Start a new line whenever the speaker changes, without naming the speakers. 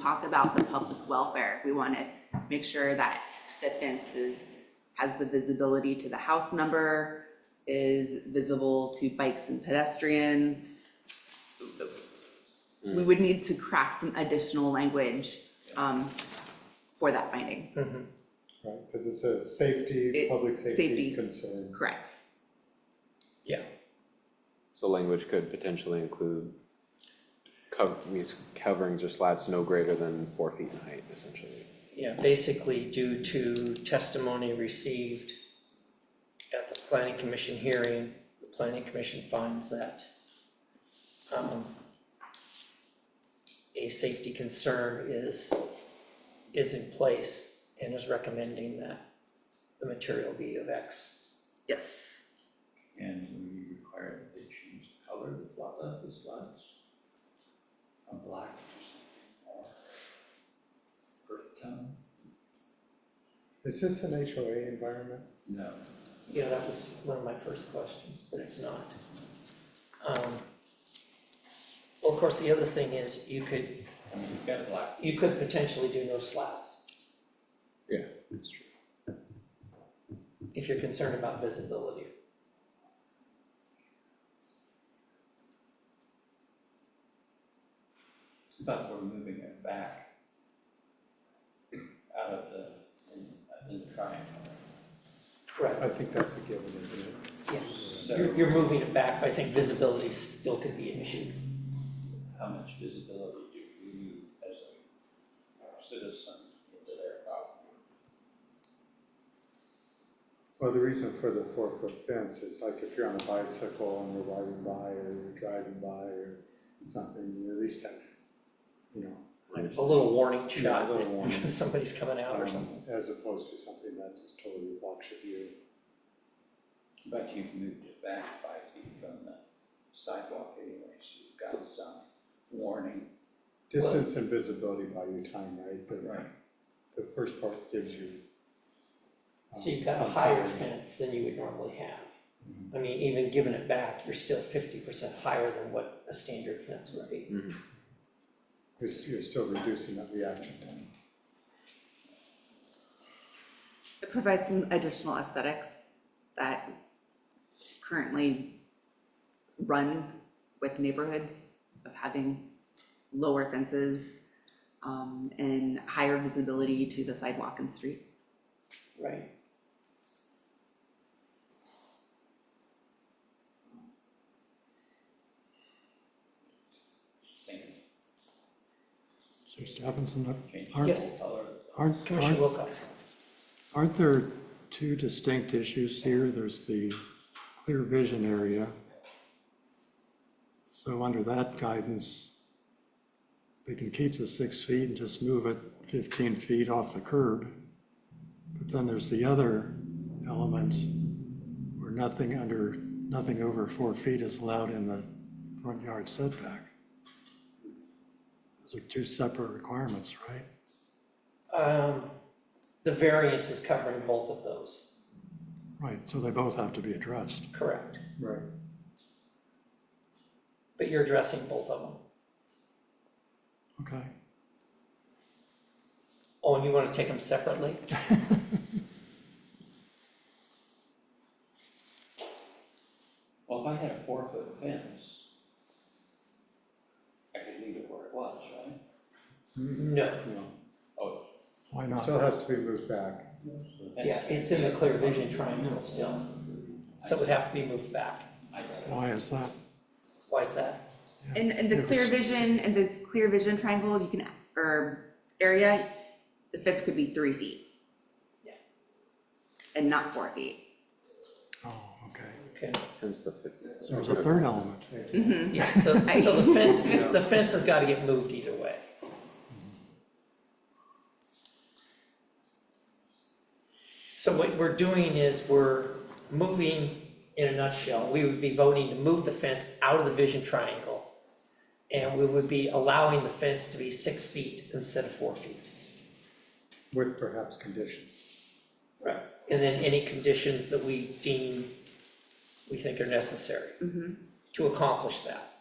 talk about the public welfare, we want to make sure that the fence is, has the visibility to the house number, is visible to bikes and pedestrians. We would need to craft some additional language um, for that finding,
Right, because it says safety,
It's
public
safety.
safety concern.
correct?
Yeah.
So language could potentially include cov- means coverings or slats no greater than four feet in height, essentially.
Yeah, basically due to testimony received at the planning commission hearing, the planning commission finds that um a safety concern is is in place and is recommending that the material be of X.
Yes.
And we require that they change the color of the flat, of the slats. A black or something, or earth tone?
Is this an HOA environment?
No.
Yeah, that was one of my first questions, but it's not. Um well, of course, the other thing is you could
I mean, you've got a black,
you could potentially do no slats
Yeah, that's true.
if you're concerned about visibility.
but we're moving it back out of the, in, in the triangle.
Right.
I think that's a given, isn't it?
Yes,
So-
you're, you're moving it back, but I think visibility still could be an issue.
How much visibility do you, as a citizen, into their property?
Well, the reason for the four-foot fence is like if you're on a bicycle and you're riding by or you're driving by or something, you at least have, you know. like,
A little warning
Yeah, a
shot
little warning.
that somebody's coming out or
um,
something.
As opposed to something that just totally blocks your view.
But you've moved it back five feet from the sidewalk anyway, so you've got some warning.
Distance and visibility by your time, right? But
Right.
the first part gives you. um,
So you've got a
some
higher
time.
fence than you would normally have.
Mm-hmm.
I mean, even giving it back, you're still fifty percent higher than what a standard fence would be.
Mm. You're, you're still reducing that reaction time.
It provides some additional aesthetics that currently run with neighborhoods of having lower fences um, and higher visibility to the sidewalk and streets.
Right.
Stand,
So Stephenson,
change
aren't,
Yes.
the color of the
aren't,
Commissioner
aren't,
Wilcox,
aren't there two distinct issues here? There's the clear vision area. So under that guidance, they can keep the six feet and just move it fifteen feet off the curb. But then there's the other element where nothing under, nothing over four feet is allowed in the front yard setback. Those are two separate requirements, right?
um, the variance is covering both of those,
Right, so they both have to be addressed.
correct?
Right.
But you're addressing both of them.
Okay.
Oh, and you wanna take them separately?
Well, if I had a four foot fence, I could leave it where it was, right?
No,
No,
Oh,
Why
it
not?
still has to be moved back.
the fence.
yeah, it's in the clear vision triangle still, so it would have to be moved back.
I see.
Why is that?
Why is that?
And, and the
It
clear
was-
vision, and the clear vision triangle, you can, or area, the fence could be three feet.
Yeah.
And not four feet.
Oh, okay.
Okay,
Hence the fifty. foot.
So there's a third element.
yeah, so, so the fence, the fence has gotta get moved either way. So what we're doing is we're moving, in a nutshell, we would be voting to move the fence out of the vision triangle. And we would be allowing the fence to be six feet instead of four feet.
With perhaps conditions.
Right. And then any conditions that we deem, we think are necessary to accomplish that.